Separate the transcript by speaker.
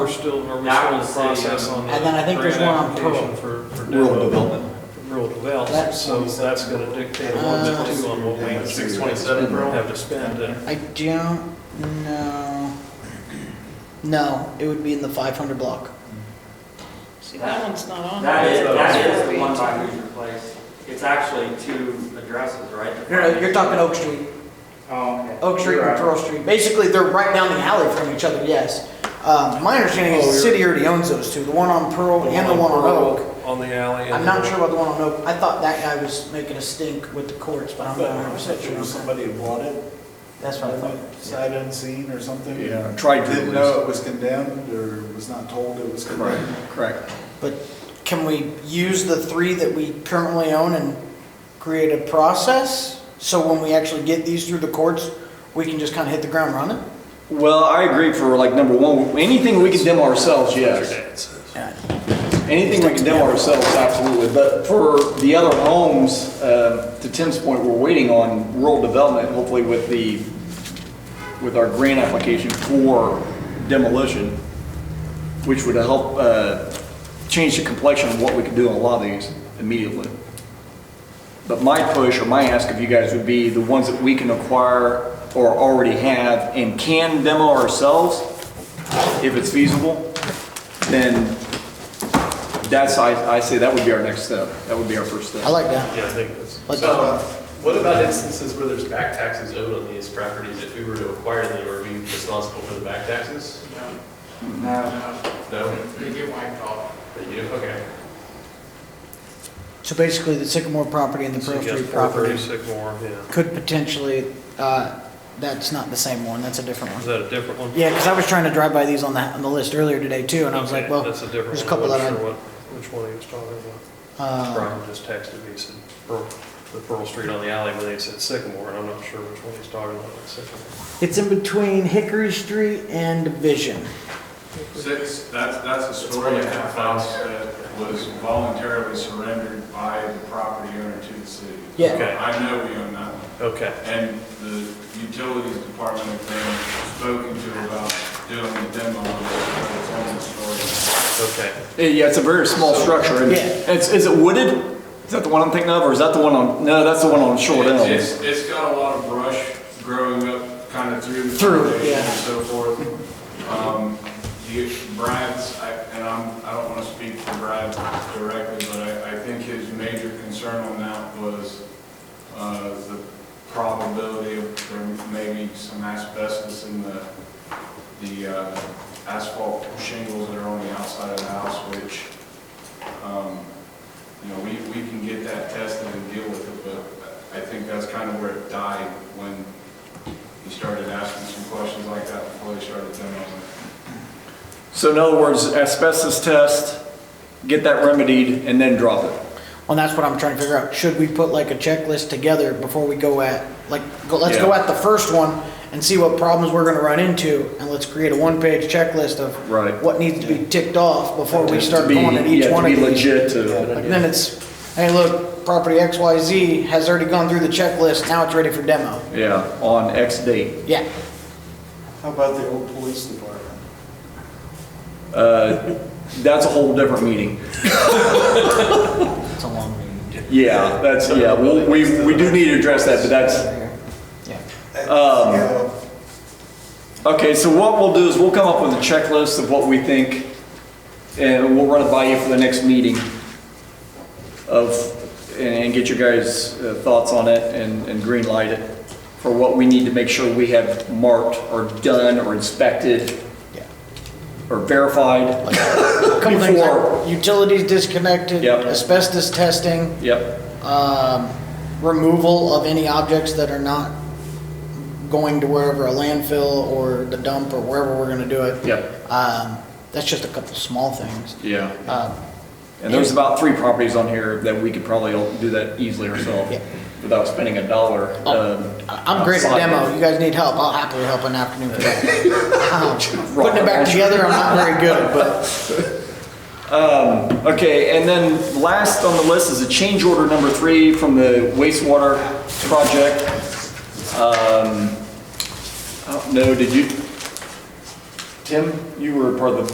Speaker 1: We're still, we're still in
Speaker 2: Now I
Speaker 1: the
Speaker 2: wanna see,
Speaker 1: process
Speaker 2: um,
Speaker 1: on the.
Speaker 3: And then I think there's
Speaker 1: grant
Speaker 3: one on
Speaker 1: application
Speaker 3: Pearl.
Speaker 1: For, for.
Speaker 4: Rural
Speaker 1: develop-
Speaker 4: development.
Speaker 1: Rural development,
Speaker 3: That's-
Speaker 1: so that's gonna dictate a
Speaker 3: Uh,
Speaker 1: little bit too on what we
Speaker 2: Six twenty-seven, bro.
Speaker 1: have to spend and.
Speaker 3: I don't know. No, it would be in the 500 block.
Speaker 5: See, that one's not on.
Speaker 2: That is,
Speaker 5: there.
Speaker 2: that is the one by Hoosier Place. It's actually two addresses, right?
Speaker 3: No, no, you're talking Oak Street.
Speaker 2: Oh, okay.
Speaker 3: Oak Street and Pearl Street. Basically, they're right down the alley from each other, yes. Uh, My understanding is the city already owns those two, the one on Pearl Oh, and the one on Oak.
Speaker 1: Pearl, On the alley. and
Speaker 3: I'm not
Speaker 1: the-
Speaker 3: sure about the one on Oak. I thought that guy was making a stink with the courts, but I'm not 100% sure.
Speaker 6: there
Speaker 3: on
Speaker 6: was
Speaker 3: that.
Speaker 6: somebody who bought it,
Speaker 3: That's what I thought.
Speaker 6: sight unseen or something.
Speaker 4: Yeah, tried to
Speaker 6: Didn't
Speaker 4: at
Speaker 6: know
Speaker 4: least.
Speaker 6: it was condemned or was not told it was
Speaker 4: Correct,
Speaker 6: condemned.
Speaker 4: correct.
Speaker 3: But can we use the three that we currently own and create a process? So when we actually get these through the courts, we can just kind of hit the ground running?
Speaker 4: Well, I agree for like number one, anything we condemn ourselves, yes. Anything we condemn ourselves, absolutely. But for the other homes, uh, to Tim's point, we're waiting on rural development, hopefully with the, with our grant application for demolition, which would help uh, change the complexion of what we could do on a lot of these immediately. But my push or my ask of you guys would be the ones that we can acquire or already have and can demo ourselves, if it's feasible, then that's, I, I say that would be our next step. That would be our first
Speaker 3: I
Speaker 4: step.
Speaker 3: like that.
Speaker 7: Yeah, I think that's.
Speaker 3: Like-
Speaker 7: So,
Speaker 1: uh,
Speaker 7: what about instances where there's back taxes owed on these properties? If we were to acquire them, are we responsible for the back taxes? No?
Speaker 8: They get wiped off.
Speaker 7: They do? Okay.
Speaker 3: So basically, the Sycamore property and the Pearl
Speaker 1: Suggest
Speaker 3: Street
Speaker 1: four thirty
Speaker 3: property
Speaker 1: Sycamore, yeah.
Speaker 3: could potentially, uh, that's not the same one, that's a different
Speaker 1: Is
Speaker 3: one.
Speaker 1: that a different one?
Speaker 3: Yeah, because I was trying to drive by these on that, on the list earlier today too, and I was
Speaker 1: Okay,
Speaker 3: like, well,
Speaker 1: That's a different one.
Speaker 3: there's a couple
Speaker 1: I
Speaker 3: that
Speaker 1: wasn't
Speaker 3: I-
Speaker 1: sure what- Which one he was talking about.
Speaker 3: uh,
Speaker 1: Brian just texted me, he said, Pearl, the Pearl Street on the alley, but they said Sycamore, and I'm not sure which one he's talking about, like Sycamore.
Speaker 3: it's in between Hickory Street and Division.
Speaker 9: Six, that's, that's a story of a house that was voluntarily surrendered by the property owner to the city.
Speaker 3: Yeah.
Speaker 1: Okay.
Speaker 9: I know we own that one.
Speaker 1: Okay.
Speaker 9: And the utilities department has been spoken to about doing the demo, but it's on the story.
Speaker 1: Okay.
Speaker 4: Eh, Yeah, it's a very small structure. and
Speaker 3: Yeah.
Speaker 4: It's, is it wooded? Is that the one I'm thinking of, or is that the one on, no, that's the one on Short Elm.
Speaker 9: It's, it's- it's got a lot of brush growing up kind of through the
Speaker 3: Through,
Speaker 9: foundation
Speaker 3: yeah.
Speaker 9: and so forth. Um, you, Brad's, I- and I'm, I don't want to speak for Brad directly, but I, I think his major concern on that was, uh, the probability of there may be some asbestos in the, the uh, asphalt shingles that are on the outside of the house, which, um, you know, we, we can get that tested and deal with it, but I think that's kind of where it died when he started asking some questions like that before they started demoing.
Speaker 4: So in other words, asbestos test, get that remedied, and then drop it.
Speaker 3: Well, that's what I'm trying to figure out. Should we put like a checklist together before we go at, like, go, let's go
Speaker 4: Yeah.
Speaker 3: at the first one and see what problems we're gonna run into, and let's create a one-page checklist of
Speaker 4: Right.
Speaker 3: what needs to be ticked off before we
Speaker 4: To
Speaker 3: start
Speaker 4: be-
Speaker 3: going at
Speaker 4: yeah,
Speaker 3: each
Speaker 4: to
Speaker 3: one
Speaker 4: be
Speaker 3: of these.
Speaker 4: Legit to.
Speaker 3: Like, then it's, hey, look, property XYZ has already gone through the checklist, now it's ready for demo.
Speaker 4: Yeah, on X date.
Speaker 3: Yeah,
Speaker 6: How about the old police department?
Speaker 4: Uh, That's a whole different meeting.
Speaker 3: it's a long meeting.
Speaker 4: Yeah, that's, yeah, we'll- we, we do need to address that, but that's,
Speaker 3: Yeah.
Speaker 4: Um,
Speaker 6: Yeah.
Speaker 4: okay, so what we'll do is we'll come up with a checklist of what we think, and we'll run it by you for the next meeting of, and and get your guys' uh, thoughts on it and, and green light it for what we need to make sure we have marked or done or inspected
Speaker 3: Yeah.
Speaker 4: or verified.
Speaker 3: Couple things, like
Speaker 4: Before.
Speaker 3: Utilities disconnected,
Speaker 4: Yep.
Speaker 3: asbestos testing.
Speaker 4: Yep.
Speaker 3: um, removal of any objects that are not going to wherever, a landfill or the dump or wherever we're gonna do it.
Speaker 4: Yep.
Speaker 3: Um, that's just a couple small things.
Speaker 4: Yeah.
Speaker 3: Um,
Speaker 4: And there's about three properties on here that we could probably do that easily ourselves
Speaker 3: Yeah.
Speaker 4: without spending a dollar. um,
Speaker 3: I- I'm great at
Speaker 4: outside.
Speaker 3: demo, you guys need help, I'll happily help an afternoon for that. Um, Putting it back together, I'm not very good, but
Speaker 4: Okay, and then last on the list is a change order number three from the wastewater project. oh, Um, I don't know, did you, Tim, you were part of the